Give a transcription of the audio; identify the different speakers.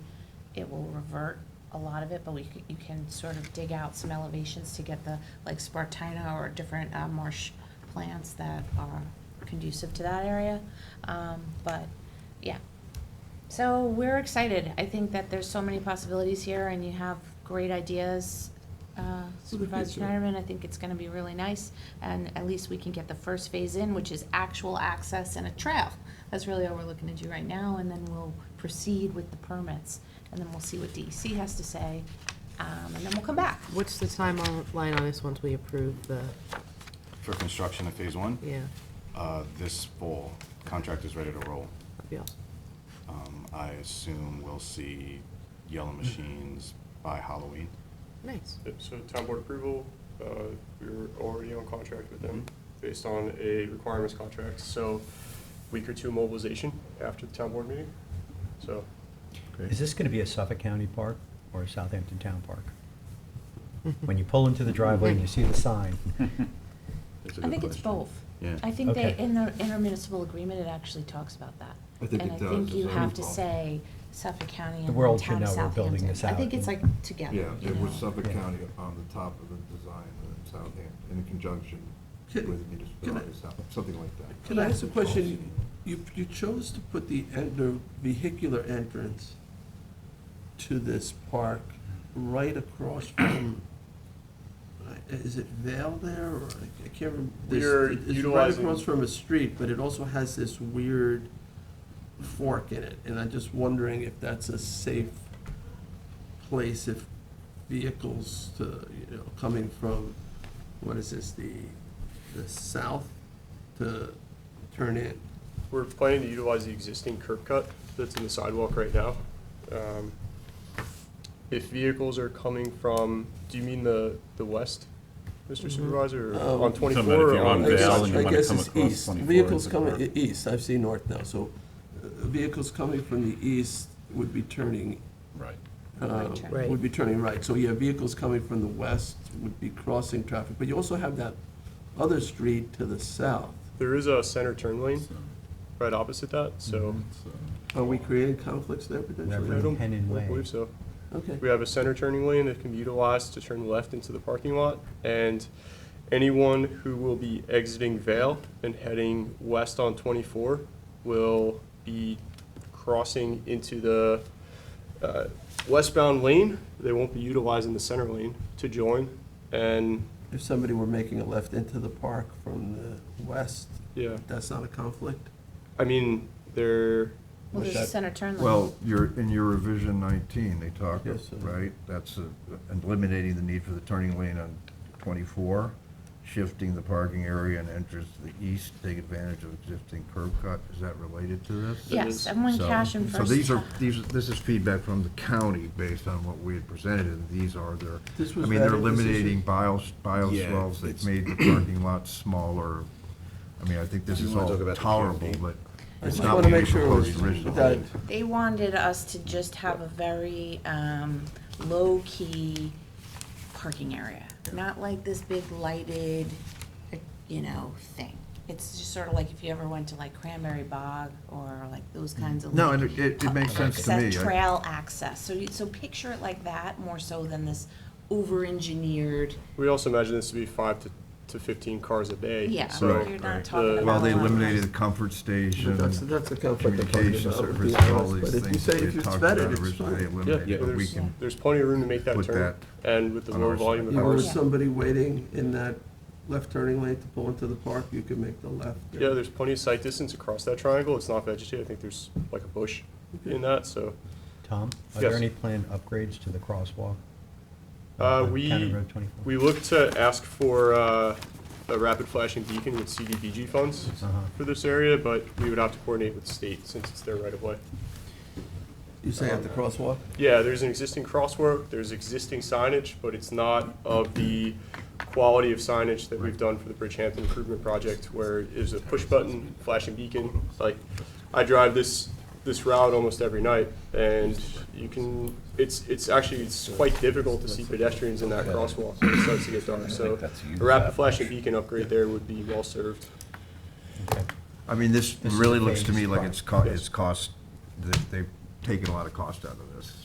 Speaker 1: it will revert a lot of it, but we, c- you can sort of dig out some elevations to get the, like Spartina or different uh, marsh plants that are conducive to that area. Um, But, yeah. So we're excited. I think that there's so many possibilities here and you have great ideas. uh, Supervisor
Speaker 2: future.
Speaker 1: Schneiderman, I think it's gonna be really nice. And at least we can get the first phase in, which is actual access and a trail. That's really all we're looking to do right now, and then we'll proceed with the permits. And then we'll see what DEC has to say, um, and then we'll come back.
Speaker 3: What's the timeline on this once we approve the,
Speaker 2: For construction of phase one,
Speaker 3: yeah,
Speaker 2: uh, this fall, contract is ready to roll.
Speaker 3: that'd be awesome.
Speaker 2: Um, I assume we'll see
Speaker 1: Mm.
Speaker 2: yellow machines by Halloween.
Speaker 3: Nice.
Speaker 4: Yep, So town board approval, uh, we were already on contract with them based on a requirements contract. So week or two mobilization after the town board meeting. So
Speaker 5: Is this going to be a Suffolk County park or a Southampton Town Park?
Speaker 4: Hmm.
Speaker 5: When you pull into the driveway and you see the sign,
Speaker 1: I think it's both.
Speaker 2: Yeah.
Speaker 1: I think they,
Speaker 5: Okay.
Speaker 1: in the intermunicipal agreement, it actually talks about that.
Speaker 6: I think it does,
Speaker 1: And I think you
Speaker 6: it's
Speaker 1: have to
Speaker 6: involved.
Speaker 1: say Suffolk County
Speaker 5: The
Speaker 1: and
Speaker 5: world
Speaker 1: town
Speaker 5: should
Speaker 1: of
Speaker 5: know we're
Speaker 1: Southampton.
Speaker 5: building this
Speaker 1: I think
Speaker 5: out.
Speaker 1: it's like together,
Speaker 6: Yeah,
Speaker 1: you
Speaker 6: it was
Speaker 1: know.
Speaker 6: Suffolk
Speaker 5: Yeah.
Speaker 6: County on the top of the design in Southampton, in conjunction with the municipality of Southampton, something like that.
Speaker 7: Can I ask a question? You, you chose to put the, en- the vehicular entrance to this park right across from, uh, is it Vale there, or I- I can't remember. There's-
Speaker 4: We're
Speaker 7: It's right
Speaker 4: utilizing-
Speaker 7: across from a street, but it also has this weird fork in it, and I'm just wondering if that's a safe place if vehicles to, you know, coming from, what is this, the, the south to turn in?
Speaker 4: we're planning to utilize the existing curb cut that's in the sidewalk right now. Um, If vehicles are coming from, do you mean the, the west, Mr. Supervisor,
Speaker 7: Oh.
Speaker 4: or
Speaker 8: Talking about Um,
Speaker 4: on
Speaker 8: if
Speaker 4: twenty-four? or
Speaker 8: you're on
Speaker 7: I guess-
Speaker 8: Vale and you
Speaker 7: I
Speaker 8: wanna
Speaker 7: guess
Speaker 8: come
Speaker 7: it's
Speaker 8: across
Speaker 7: east.
Speaker 8: 24
Speaker 7: Vehicles
Speaker 8: into the
Speaker 7: coming, e-,
Speaker 8: park.
Speaker 7: east, I've seen north now, so uh, vehicles coming from the east would be turning,
Speaker 8: Right.
Speaker 7: uh,
Speaker 1: Right turn.
Speaker 3: Right.
Speaker 7: would be turning right. So, yeah, vehicles coming from the west would be crossing traffic, but you also have that other street to the south.
Speaker 4: There is a center turn lane right opposite that, so
Speaker 7: Are we creating conflicts there
Speaker 4: I
Speaker 7: potentially?
Speaker 5: Reverend
Speaker 4: don't I
Speaker 5: Henin Way.
Speaker 4: don't believe so.
Speaker 7: Okay.
Speaker 4: We have a center turning lane that can be utilized to turn left into the parking lot, and anyone who will be exiting Vale and heading west on 24 will be crossing into the uh, westbound lane. They won't be utilizing the center lane to join, and,
Speaker 7: If somebody were making a left into the park from the west,
Speaker 4: yeah,
Speaker 7: that's not a conflict?
Speaker 4: I mean, they're,
Speaker 1: Well, there's a center turn lane.
Speaker 6: Well, your, in your revision nineteen, they talk,
Speaker 7: Yes, sir.
Speaker 6: right, that's uh, eliminating the need for the turning lane on twenty-four, shifting the parking area and entrance to the east, take advantage of existing curb cut, is that related to this?
Speaker 1: Yes, everyone
Speaker 6: So-
Speaker 1: cash in
Speaker 6: So
Speaker 1: first.
Speaker 6: these are, these, are- this is feedback from the county based on what we had presented, and these are their,
Speaker 7: This
Speaker 6: I
Speaker 7: was
Speaker 6: mean, they're
Speaker 7: vetted, this is-
Speaker 6: eliminating bio, bio
Speaker 2: Yeah,
Speaker 6: swells,
Speaker 2: it's-
Speaker 6: they've made the parking lots smaller. I mean, I think this
Speaker 2: Do you
Speaker 6: is
Speaker 2: wanna
Speaker 6: all
Speaker 2: talk about the
Speaker 6: tolerable,
Speaker 2: canopy?
Speaker 6: but
Speaker 7: I
Speaker 6: it's
Speaker 7: just
Speaker 6: not
Speaker 7: wanna
Speaker 6: what we
Speaker 7: make sure it was-
Speaker 6: proposed originally.
Speaker 7: that-
Speaker 1: They wanted us to just have a very um, low-key parking area, not like this big lighted, uh, you know, thing. It's just sort of like if you ever went to like Cranberry Bog or like those kinds of.
Speaker 6: No,
Speaker 1: like,
Speaker 6: and it- it- it makes sense to
Speaker 1: access-
Speaker 6: me. I-
Speaker 1: Trail access, so you, so picture it like that more so than this over-engineered,
Speaker 4: we also imagine this to be five to to 15 cars a day.
Speaker 1: yeah,
Speaker 4: So
Speaker 6: Right.
Speaker 1: you're not talking about.
Speaker 6: Well, they
Speaker 1: a lot of
Speaker 6: eliminated the
Speaker 1: cars.
Speaker 6: comfort station,
Speaker 7: But That's, that's a conflict I'm talking
Speaker 6: communication
Speaker 7: about, to
Speaker 6: service,
Speaker 7: be
Speaker 6: all
Speaker 7: honest,
Speaker 6: these
Speaker 7: but if you
Speaker 6: things
Speaker 7: say if
Speaker 6: that we
Speaker 7: it's
Speaker 6: talked about
Speaker 7: vetted, it's
Speaker 6: originally, they
Speaker 7: fine.
Speaker 6: eliminated, but we
Speaker 4: there's,
Speaker 6: can.
Speaker 4: there's plenty of room to make that
Speaker 6: Put
Speaker 4: turn,
Speaker 6: that
Speaker 4: and with the
Speaker 6: on
Speaker 4: low
Speaker 6: our
Speaker 4: volume of
Speaker 7: If there
Speaker 4: cars.
Speaker 7: was somebody waiting in that left turning lane to pull into the park, you could make the left.
Speaker 4: Yeah, there's plenty of sight distance across that triangle. It's not vegetated. I think there's like a bush in that, so.
Speaker 5: Tom, are there
Speaker 4: Yes.
Speaker 5: any planned upgrades to the crosswalk?
Speaker 4: Uh,
Speaker 5: on County
Speaker 4: we,
Speaker 5: Road 24?
Speaker 4: we look to ask for, uh, a rapid flashing beacon with CDBG funds
Speaker 5: Uh-huh.
Speaker 4: for this area, but we would have to coordinate with the state since it's their right of way.
Speaker 7: You say at the crosswalk?
Speaker 4: Yeah, there's an existing crosswalk, there's existing signage, but it's not of the quality of signage that we've done for the Bridgehampton Improvement Project, where there's a push button, flashing beacon, like, I drive this, this route almost every night, and you can, it's, it's actually, it's quite difficult to see pedestrians in that crosswalk when it starts to get dark, so a rapid flashing beacon upgrade there would be well-served.
Speaker 5: Okay.
Speaker 6: I mean, this
Speaker 5: is
Speaker 6: really
Speaker 5: the
Speaker 6: looks to me
Speaker 5: phase
Speaker 6: like
Speaker 5: part.
Speaker 6: it's co- it's cost, that they've taken a lot of cost out of this.